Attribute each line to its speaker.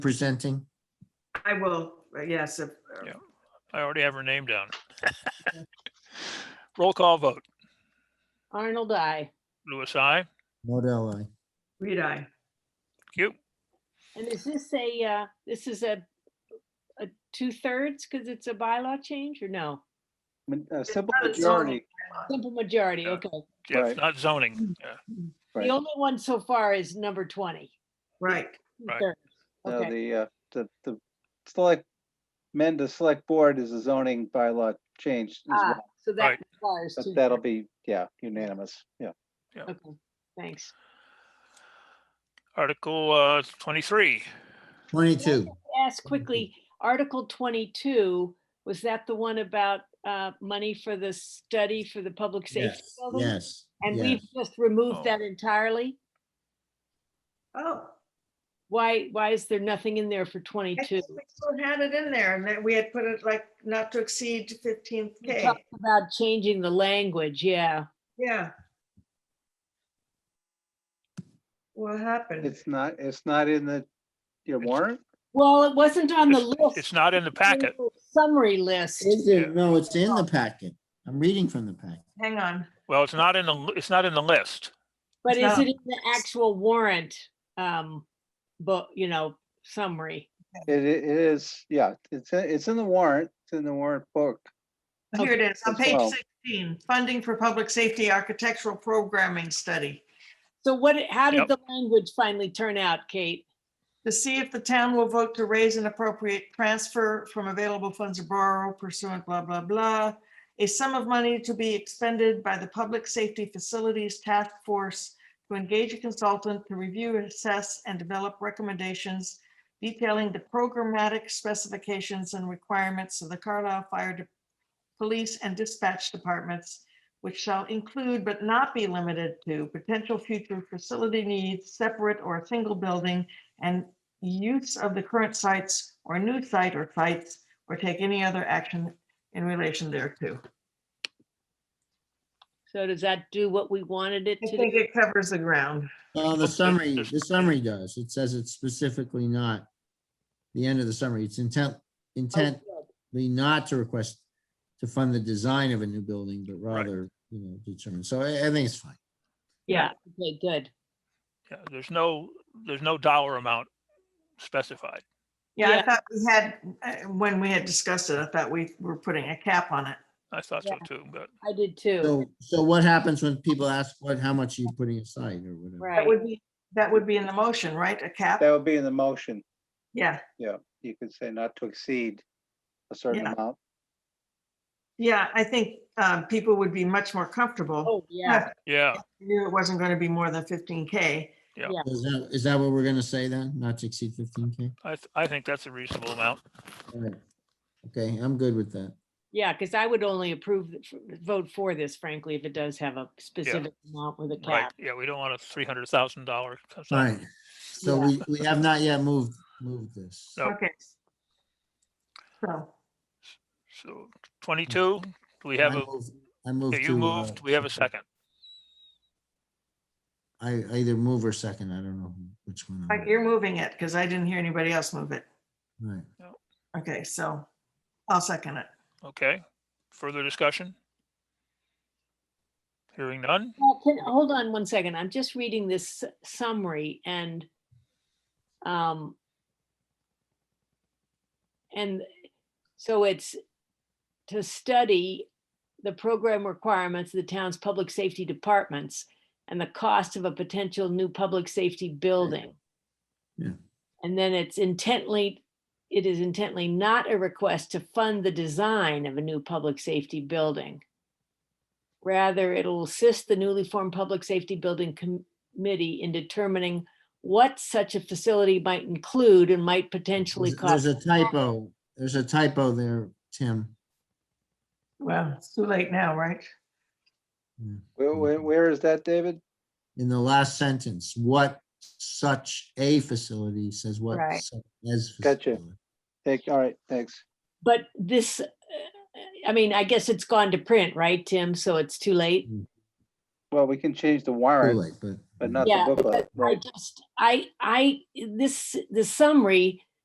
Speaker 1: presenting?
Speaker 2: I will, uh, yes, if- uh,
Speaker 3: Yeah. I already have her name down. Roll call vote.
Speaker 4: Arnold, I.
Speaker 3: Louis, I.
Speaker 1: Model I.
Speaker 2: read I.
Speaker 3: You.
Speaker 4: And is this a, uh, this is a, a two thirds because it's a bylaw change or no?
Speaker 5: Ma- A uh, simple
Speaker 2: not a zoning.
Speaker 5: majority,
Speaker 4: Simple majority,
Speaker 3: Yeah.
Speaker 4: okay.
Speaker 3: Yeah,
Speaker 5: Right.
Speaker 3: it's not zoning. Yeah.
Speaker 4: The
Speaker 5: Right.
Speaker 4: only one so far is number twenty.
Speaker 2: Right,
Speaker 3: Right.
Speaker 4: two-thirds.
Speaker 5: uh,
Speaker 4: Okay,
Speaker 5: the, uh, the, the select, amend the select board is a zoning bylaw change. as
Speaker 4: Ah,
Speaker 5: well,
Speaker 4: so that
Speaker 3: Right.
Speaker 4: requires
Speaker 5: but
Speaker 4: two.
Speaker 5: That'll be, yeah, unanimous, yeah.
Speaker 4: Okay, thanks.
Speaker 3: Article uh, 23.
Speaker 1: Twenty-two.
Speaker 4: Ask quickly,
Speaker 5: Mm-hmm.
Speaker 4: Article twenty-two, was that the one about, uh, money for the study for the public safety
Speaker 1: Yes,
Speaker 4: building?
Speaker 1: yes.
Speaker 4: And
Speaker 1: yes.
Speaker 4: we've just removed that entirely?
Speaker 2: oh.
Speaker 4: Why, why is there nothing in there for
Speaker 2: I
Speaker 4: twenty-two?
Speaker 2: guess We still had it in there and that we had put it like not to exceed fifteen K,
Speaker 4: talked about changing the language, yeah.
Speaker 2: yeah. What happened?
Speaker 5: It's not, it's not in the, your
Speaker 3: It's-
Speaker 5: warrant?
Speaker 4: Well, it wasn't on the
Speaker 3: It's it's
Speaker 4: list.
Speaker 3: not in the packet.
Speaker 4: Summary list.
Speaker 1: Is it? No, it's in the packet. I'm reading from the packet.
Speaker 2: Hang on,
Speaker 3: Well, it's not in the, it's not in the list.
Speaker 2: It's
Speaker 4: But is
Speaker 2: not-
Speaker 4: it in the actual warrant? Um, but, you know, summary.
Speaker 5: It, i- it is, yeah, it's, in- it's in the warrant, it's in the warrant book.
Speaker 2: here it is, on
Speaker 5: As
Speaker 2: page
Speaker 5: well.
Speaker 2: sixteen, funding for public safety architectural programming study.
Speaker 4: So what, how did
Speaker 3: Yep.
Speaker 4: the language finally turn out, Kate?
Speaker 2: To see if the town will vote to raise an appropriate transfer from available funds or borrow pursuant blah, blah, blah. A sum of money to be expended by the Public Safety Facilities Task Force to engage a consultant to review, assess, and develop recommendations detailing the programmatic specifications and requirements of the Carlisle Fire De- Police and Dispatch Departments, which shall include but not be limited to potential future facility needs, separate or a single building, and use of the current sites or new site or sites, or take any other action in relation thereto.
Speaker 4: So does that do what we wanted it
Speaker 2: I
Speaker 4: to?
Speaker 2: think
Speaker 4: do?
Speaker 2: it covers the ground.
Speaker 1: Well, the
Speaker 3: It's-
Speaker 1: summary,
Speaker 3: it's-
Speaker 1: the summary does. It says it's specifically not the end of the summary. It's intent, intently
Speaker 4: Oh,
Speaker 1: not to request to fund the design of a new building, but
Speaker 3: Right.
Speaker 1: rather, you know, determine. So I, I think it's fine.
Speaker 4: Yeah, okay, good.
Speaker 3: Yeah, There's no, there's no dollar amount specified.
Speaker 2: Yeah, I
Speaker 4: Yeah.
Speaker 2: thought we had, uh, when we had discussed it, I thought we were putting a cap on it.
Speaker 3: I thought so too, but
Speaker 4: I did too.
Speaker 1: So, so what happens when people ask, what, how much are you putting aside or whatever?
Speaker 2: That
Speaker 4: Right.
Speaker 2: would be, that would be in the motion, right? A cap?
Speaker 5: That would be in the motion,
Speaker 2: Yeah,
Speaker 5: yeah. You could say not to exceed a certain
Speaker 2: Yeah.
Speaker 5: amount.
Speaker 2: yeah, I think um, people would be much more comfortable.
Speaker 4: Oh, yeah.
Speaker 3: yeah,
Speaker 2: if they Knew it wasn't going to be more than fifteen K.
Speaker 1: Is that, is that what we're gonna say then? Not to exceed fifteen K?
Speaker 3: I, th- I think that's a reasonable amount.
Speaker 1: Okay, I'm good with that.
Speaker 4: Yeah, because I would only approve, the- vote for this frankly, if it does have a specific amount with a
Speaker 3: Right.
Speaker 4: cap.
Speaker 3: Yeah, we don't want a $300,000.
Speaker 1: All right. So
Speaker 4: Yeah.
Speaker 1: we, we have not yet moved, moved this.
Speaker 3: No.
Speaker 2: Okay. So,
Speaker 3: So 22, do we have
Speaker 1: I
Speaker 3: a,
Speaker 1: move- I moved
Speaker 3: yeah,
Speaker 1: to.
Speaker 3: you
Speaker 1: uh,
Speaker 3: moved, we have a second.
Speaker 1: I, I either move or second, I don't know which one. I
Speaker 2: like, you're moving it because I didn't hear anybody else move it.
Speaker 1: moved. Right.
Speaker 2: Okay, so I'll second it.
Speaker 3: Okay, further discussion? Hearing none?
Speaker 4: Well, can, hold on one second. I'm just reading this s- summary and um and so it's to study the program requirements of the town's public safety departments and the cost of a potential new public safety building.
Speaker 1: Yeah.
Speaker 4: And then it's intently, it is intently not a request to fund the design of a new public safety building. Rather, it'll assist the newly formed Public Safety Building Com- Committee in determining what such a facility might include and might potentially
Speaker 1: There's- There's
Speaker 4: cost.
Speaker 1: a typo, there's a typo there, Tim.
Speaker 2: Well, it's too late now, right?
Speaker 1: Yeah.
Speaker 5: Where, where, where is that, David?
Speaker 1: In the last sentence, what such a facility says what
Speaker 4: Right.
Speaker 1: such as.
Speaker 5: Gotcha.
Speaker 1: facility.
Speaker 5: Take, all right, thanks.
Speaker 4: But this, uh, I mean, I guess it's gone to print, right, Tim? So it's too late.
Speaker 5: Well, we can change the
Speaker 1: Too
Speaker 5: warrant,
Speaker 1: late, but.
Speaker 5: but not
Speaker 4: Yeah,
Speaker 5: the booklet,
Speaker 4: I
Speaker 5: right?
Speaker 4: just, I, I, this, the summary